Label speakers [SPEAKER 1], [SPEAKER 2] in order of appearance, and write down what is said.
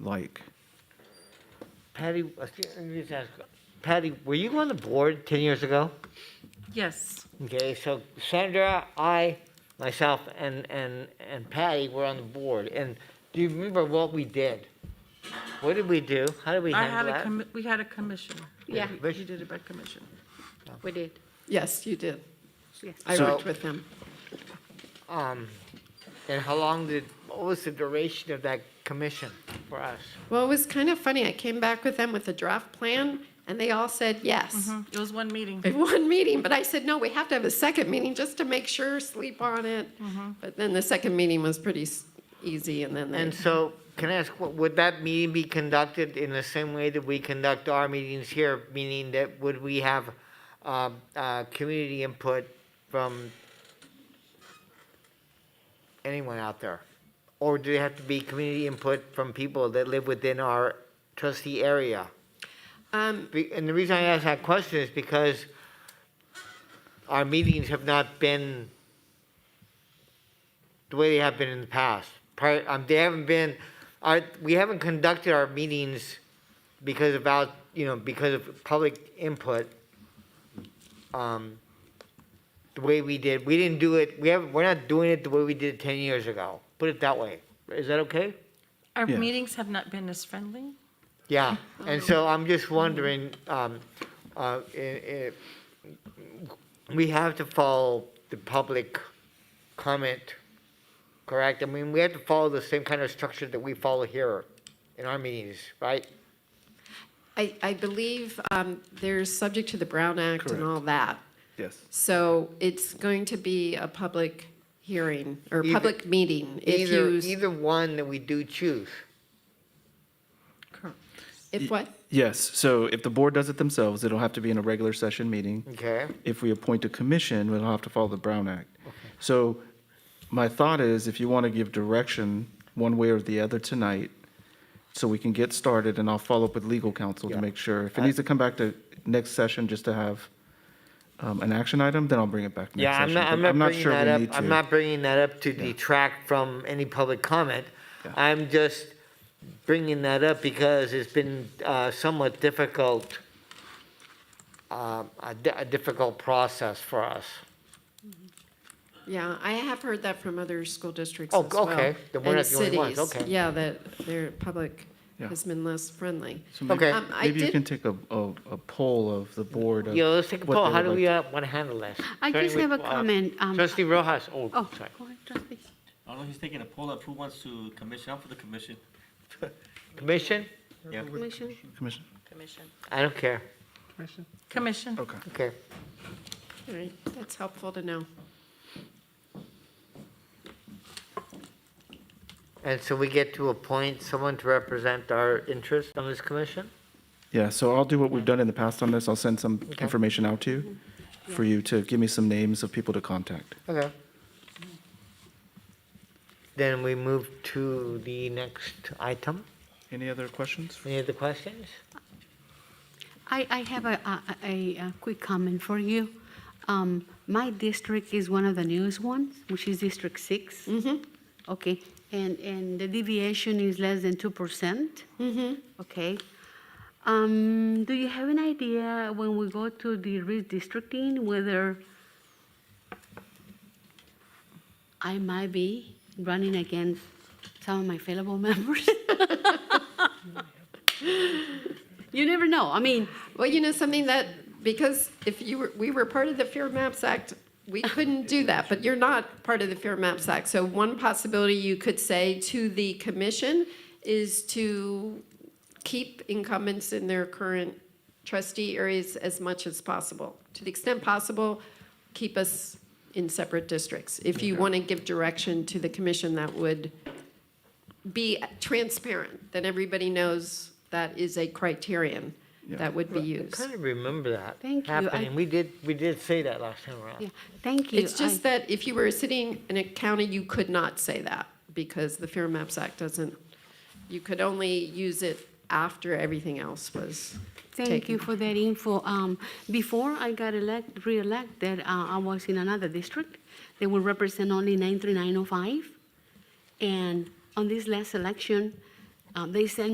[SPEAKER 1] like.
[SPEAKER 2] Patty, excuse- let me just ask, Patty, were you on the board 10 years ago?
[SPEAKER 3] Yes,
[SPEAKER 2] Okay, so Sandra, I, myself, and, and, and Patty were on the board, and do you remember what we did? What did we do? How did we
[SPEAKER 3] I had
[SPEAKER 2] handle
[SPEAKER 3] a,
[SPEAKER 2] that?
[SPEAKER 3] commi- we had a commission.
[SPEAKER 4] Yeah.
[SPEAKER 3] We- We did it by commission.
[SPEAKER 4] We did,
[SPEAKER 5] Yes, you did.
[SPEAKER 4] yes.
[SPEAKER 5] I
[SPEAKER 2] So-
[SPEAKER 5] worked with him.
[SPEAKER 2] Um, and how long did, what was the duration of that commission for us?
[SPEAKER 5] Well, it was kind of funny. I came back with them with a draft plan, and they all said yes.
[SPEAKER 3] It was one meeting.
[SPEAKER 5] At one meeting, but I said, no, we have to have a second meeting just to make sure, sleep on it. But then the second meeting was pretty s- easy, and then they,
[SPEAKER 2] And so, can I ask, what- would that meeting be conducted in the same way that we conduct our meetings here? Meaning that would we have, uh, uh, community input from anyone out there? Or do they have to be community input from people that live within our trustee area?
[SPEAKER 5] um,
[SPEAKER 2] Be- And the reason I ask that question is because our meetings have not been the way they have been in the past. Prior, um, they haven't been, our, we haven't conducted our meetings because of out, you know, because of public input. Um, the way we did, we didn't do it, we haven't, we're not doing it the way we did it ten years ago. Put it that way. Is that okay?
[SPEAKER 3] Our
[SPEAKER 1] Yeah.
[SPEAKER 3] meetings have not been as friendly.
[SPEAKER 2] Yeah, and so I'm just wondering, um, uh, i i we have to follow the public comment, correct? I mean, we have to follow the same kind of structure that we follow here in our meetings, right?
[SPEAKER 5] I, I believe um, they're subject to the Brown Act and
[SPEAKER 1] Correct.
[SPEAKER 5] all that.
[SPEAKER 1] Yes.
[SPEAKER 5] So it's going to be a public hearing or
[SPEAKER 2] Either-
[SPEAKER 5] public meeting. If
[SPEAKER 2] Either,
[SPEAKER 5] you, s-
[SPEAKER 2] either one that we do choose.
[SPEAKER 3] Correct.
[SPEAKER 5] if what?
[SPEAKER 1] Yes, so if the board does it themselves, it'll have to be in a regular session meeting.
[SPEAKER 2] Okay.
[SPEAKER 1] If we appoint a commission, we'll have to follow the Brown Act. So my thought is, if you want to give direction one way or the other tonight, so we can get started, and I'll follow up with legal counsel to
[SPEAKER 2] Yeah.
[SPEAKER 1] make sure. If it needs to come back to next session just to have um, an action item, then I'll bring it back next
[SPEAKER 2] Yeah, I'm
[SPEAKER 1] session.
[SPEAKER 2] not,
[SPEAKER 1] but
[SPEAKER 2] I'm not bringing
[SPEAKER 1] sure
[SPEAKER 2] that
[SPEAKER 1] we
[SPEAKER 2] up,
[SPEAKER 1] need
[SPEAKER 2] I'm
[SPEAKER 1] to.
[SPEAKER 2] not bringing that up to detract from any public comment.
[SPEAKER 1] Yeah.
[SPEAKER 2] I'm just bringing that up because it's been uh, somewhat difficult, um, a di- a difficult process for us.
[SPEAKER 5] Yeah, I have heard that from other school districts
[SPEAKER 2] Oh,
[SPEAKER 5] as well.
[SPEAKER 2] okay. Then we're
[SPEAKER 5] and
[SPEAKER 2] not the only ones.
[SPEAKER 5] cities.
[SPEAKER 2] Okay.
[SPEAKER 5] Yeah, that their public
[SPEAKER 1] Yeah.
[SPEAKER 5] has been less friendly.
[SPEAKER 1] So maybe-
[SPEAKER 2] Okay.
[SPEAKER 5] Um, I
[SPEAKER 1] Maybe you
[SPEAKER 5] did-
[SPEAKER 1] can take a, a a poll of the board. of
[SPEAKER 2] Yeah, let's take a
[SPEAKER 1] what
[SPEAKER 2] poll,
[SPEAKER 1] they
[SPEAKER 2] how
[SPEAKER 1] would
[SPEAKER 2] do
[SPEAKER 1] like
[SPEAKER 2] we want to handle this?
[SPEAKER 4] I
[SPEAKER 2] Starting
[SPEAKER 4] just have a
[SPEAKER 2] with, uh,
[SPEAKER 4] comment. um,
[SPEAKER 2] Trustee Rojas, oh,
[SPEAKER 4] Oh,
[SPEAKER 2] sorry.
[SPEAKER 4] go ahead, trustee.
[SPEAKER 6] I don't know, he's taking a poll up, who wants to commission, I'm for the commission.
[SPEAKER 2] Commission?
[SPEAKER 6] Yeah.
[SPEAKER 4] Commission.
[SPEAKER 2] uh,
[SPEAKER 1] to- Commission,
[SPEAKER 3] Commission.
[SPEAKER 2] I don't care,
[SPEAKER 3] Commission.
[SPEAKER 1] okay.
[SPEAKER 2] okay.
[SPEAKER 5] All right, that's helpful to know.
[SPEAKER 2] And so we get to appoint someone to represent our interests on this commission?
[SPEAKER 1] Yeah, so I'll do what we've done in the past on this. I'll send some information out to you for you to give me some names of people to contact.
[SPEAKER 2] Okay. Then we move to the next item.
[SPEAKER 1] Any other questions?
[SPEAKER 2] Any other questions?
[SPEAKER 4] I, I have a, a- a, a quick comment for you. Um, My district is one of the newest ones, which is District 6. Okay, and, and the deviation is less than 2%? Mm-hmm. Okay. Um, Do you have an idea when we go to the redistricting, whether I might be running against some of my fellow members? You never know, I mean,
[SPEAKER 5] Well, you know something that, because if you were, we were part of the Fair Maps Act, we couldn't do that, but you're not part of the Fair Maps Act. So one possibility you could say to the commission is to keep incumbents in their current trustee areas as much as possible. To the extent possible, keep us in separate districts. If you want to give direction to the commission, that would be transparent, that everybody knows that is a criterion that would be
[SPEAKER 2] I
[SPEAKER 5] used.
[SPEAKER 2] kind of remember that
[SPEAKER 4] Thank you, I-
[SPEAKER 2] happening. We did, we did say that last time around.
[SPEAKER 4] yeah, thank you.
[SPEAKER 5] It's just that if you were sitting in a county, you could not say that because the Fair Maps Act doesn't, you could only use it after everything else was
[SPEAKER 4] Thank you
[SPEAKER 5] taken.
[SPEAKER 4] for that info. Um, Before I got elect, re-elected, uh, I was in another district. They would represent only 93905. And on this last election, um, they sent